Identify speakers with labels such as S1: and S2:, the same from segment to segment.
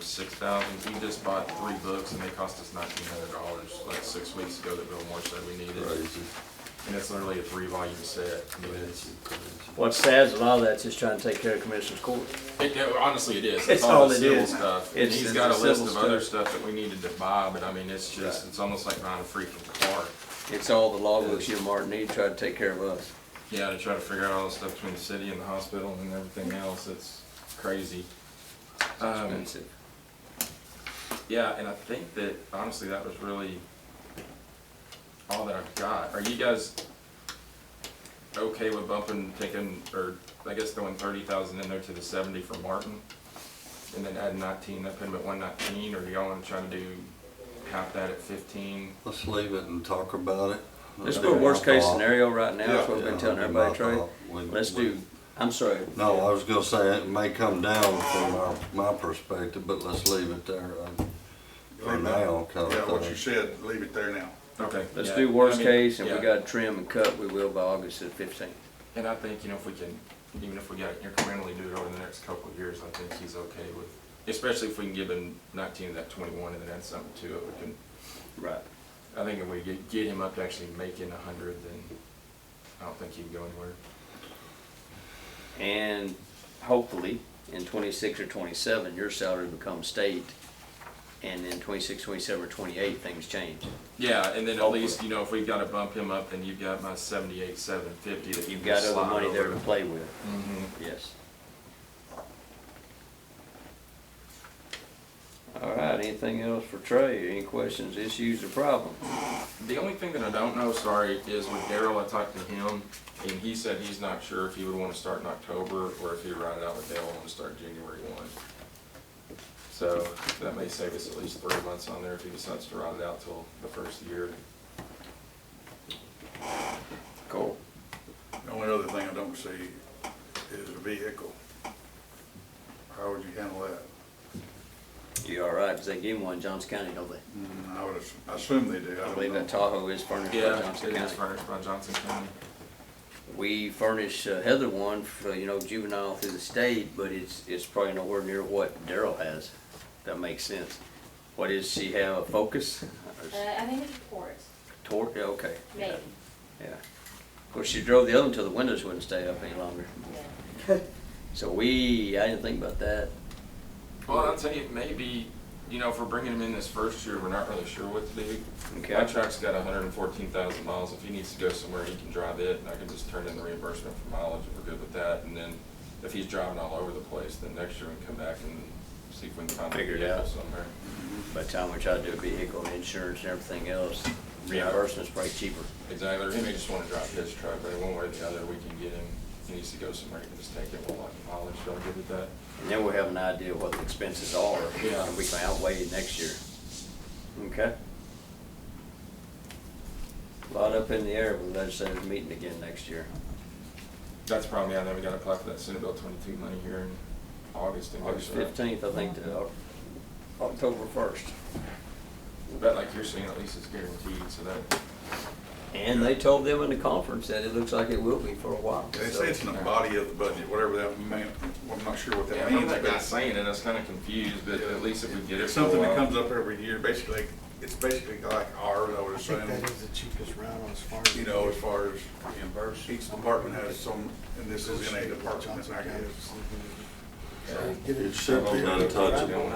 S1: six thousand. We just bought three books and they cost us nineteen hundred dollars like six weeks ago that Bill Moore said we needed.
S2: Crazy,
S1: And it's literally a three volume set. I mean, it's-
S2: crazy, crazy.
S3: What's sad is a lot of that's just trying to take care of Commissioner's Court.
S1: It, it- honestly, it is.
S3: It's
S1: It's all
S3: all
S1: the
S3: it
S1: civil
S3: is.
S1: stuff. And
S3: It's-
S1: he's
S3: it's
S1: got a
S3: the
S1: list
S3: civil
S1: of other stuff that we needed to buy, but I mean, it's just,
S2: Right.
S1: it's almost like buying a freaking car.
S3: It's all the logbooks you and Martin need, try to take care of us.
S1: Yeah, to try to figure out all the stuff between the city and the hospital and everything else, it's crazy. Um,
S3: Expensive.
S1: yeah, and I think that honestly, that was really all that I've got. Are you guys okay with bumping, taking, or I guess throwing thirty thousand in there to the seventy for Martin? And then add nineteen, that put him at one nineteen, or do y'all wanna try to do half that at fifteen?
S2: Let's leave it and talk about it.
S3: Let's go worst case scenario right now,
S2: Yeah,
S3: that's what I've been
S2: yeah,
S3: telling
S2: that'd be
S3: everybody,
S2: my
S3: Trey.
S2: thought. We-
S3: Let's
S2: we-
S3: do, I'm sorry,
S2: No, I was gonna say, it may come down from our, my perspective, but let's leave it there, uh, for now, kind
S4: Yeah,
S2: of
S4: what you
S2: thing.
S4: said, leave it there now.
S1: Okay.
S3: let's
S1: yeah.
S3: do worst
S1: I mean,
S3: case and we
S1: yeah.
S3: gotta trim and cut, we will by August the fifteenth.
S1: And I think, you know, if we can, even if we got incrementally do it over the next couple of years, I think he's okay with, especially if we can give him nineteen of that twenty-one and then add something to it, we can,
S3: Right.
S1: I think if we get, get him up to actually making a hundred, then I don't think he can go anywhere.
S3: And hopefully, in twenty-six or twenty-seven, your salary becomes state. And then twenty-six, twenty-seven, or twenty-eight, things change.
S1: Yeah, and then at
S3: Hopefully.
S1: least, you know, if we gotta bump him up, then you've got my seventy-eight, seven fifty that you
S3: You've
S1: can
S3: got other
S1: slide
S3: money there
S1: over.
S3: to play with,
S1: Mhm.
S3: yes. All right, anything else for Trey? Any questions, issues, or problems?
S1: The only thing that I don't know, sorry, is with Daryl, I talked to him, and he said he's not sure if he would wanna start in October, or if he ride it out with Dale, wanna start January one. So, that may save us at least three months on there if he decides to ride it out till the first year.
S3: Cool.
S4: The only other thing I don't see is a vehicle. How would you handle that?
S3: You all right, 'cause they give him one, in Johnson County, don't they?
S4: I would ass- I assume they do.
S3: I
S4: don't
S3: believe Mm. that
S4: know.
S3: Tahoe is furnished by
S1: Yeah,
S3: Johnson
S1: it is
S3: County.
S1: furnished by Johnson County.
S3: We furnish uh, Heather one for, you know, juvenile through the state, but it's, it's probably nowhere near what Daryl has. That makes sense. What is she have, a Focus?
S5: Uh, I think it's port,
S3: Tor, yeah, okay.
S5: maybe.
S3: Yeah. Of course, she drove the other one till the windows wouldn't stay up any longer. So we, I didn't think about that.
S1: Well, I'll tell you, maybe, you know, if we're bringing him in this first year, we're not really sure what to do.
S3: Okay.
S1: My truck's got hundred and fourteen thousand miles, if he needs to go somewhere, he can drive it, and I can just turn in the reimbursement for mileage, if we're good with that, and then if he's driving all over the place, then next year we can come back and see if we can find a
S3: Figure it out.
S1: vehicle somewhere.
S3: By the time we tried to do vehicle and insurance and everything else,
S1: Yeah.
S3: reimbursement's probably cheaper.
S1: Exactly, or he may just wanna drive his truck, but one way or the other, we can get him, if he needs to go somewhere, he can just take it, we'll lock the mileage, y'all good with that?
S3: And then we'll have an idea what the expenses are,
S1: Yeah.
S3: and we can outweigh it next year. Okay? Lot up in the air with legislative meeting again next year.
S1: That's probably, yeah, then we gotta apply for that Senate Bill twenty-two money here in August. and go
S3: August
S1: through it.
S3: fifteenth, I think, to Oc- October first.
S1: But like you're saying, at least it's guaranteed, so that,
S3: And they told them in the conference that it looks like it will be for a while.
S4: They
S3: so-
S4: say it's in the body of the budget, whatever that meant, I'm not sure what
S1: Yeah, I
S4: that
S1: remember
S4: means,
S1: that guy
S4: but.
S1: saying it, I was kinda confused, but at least if we get it
S4: It's
S1: for a
S4: something that
S1: while.
S4: comes up every year, basically, it's basically like ours, I would
S6: I think
S4: assume,
S6: that is the cheapest route on as far as.
S4: you know, as far as reimbursement. Each department has some, and this is in a department,
S6: Johnson
S4: I
S6: County.
S4: guess.
S6: So get
S2: It should be untouchable.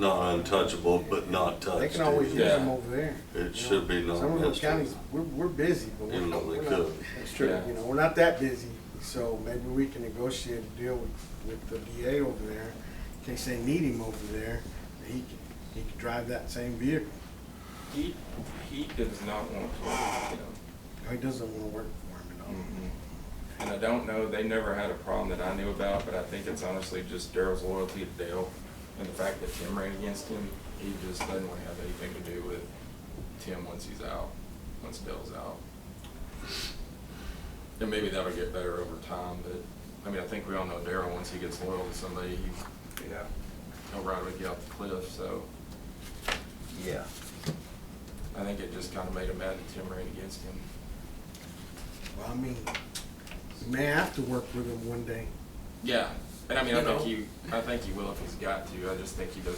S2: Not untouchable, but not touched.
S6: They can always use
S1: Yeah.
S6: them over there. you know.
S2: It should be non
S6: Some of those counties,
S2: municipal.
S6: we're, we're busy, but we're
S2: Even
S6: not,
S2: though they
S6: we're not,
S2: could.
S6: that's true,
S1: Yeah.
S6: you know, we're not that busy. So maybe we can negotiate a deal with, with the DA over there, in case they need him over there, that he can, he can drive that same vehicle.
S1: He, he does not want to work with them.
S6: He doesn't wanna work for him at all.
S1: Mm-hmm. And I don't know, they never had a problem that I knew about, but I think it's honestly just Daryl's loyalty to Dale and the fact that Tim ran against him, he just doesn't wanna have anything to do with Tim once he's out, once Dale's out. And maybe that'll get better over time, but, I mean, I think we all know Daryl, once he gets loyal to somebody, he,
S4: Yeah.
S1: he'll ride with you out the cliff, so.
S3: Yeah.
S1: I think it just kinda made him mad that Tim ran against him.
S6: Well, I mean, you may have to work with him one day.
S1: Yeah, and I mean, I
S6: You
S1: think
S6: know?
S1: he, I think he will if he's got to. I just think he does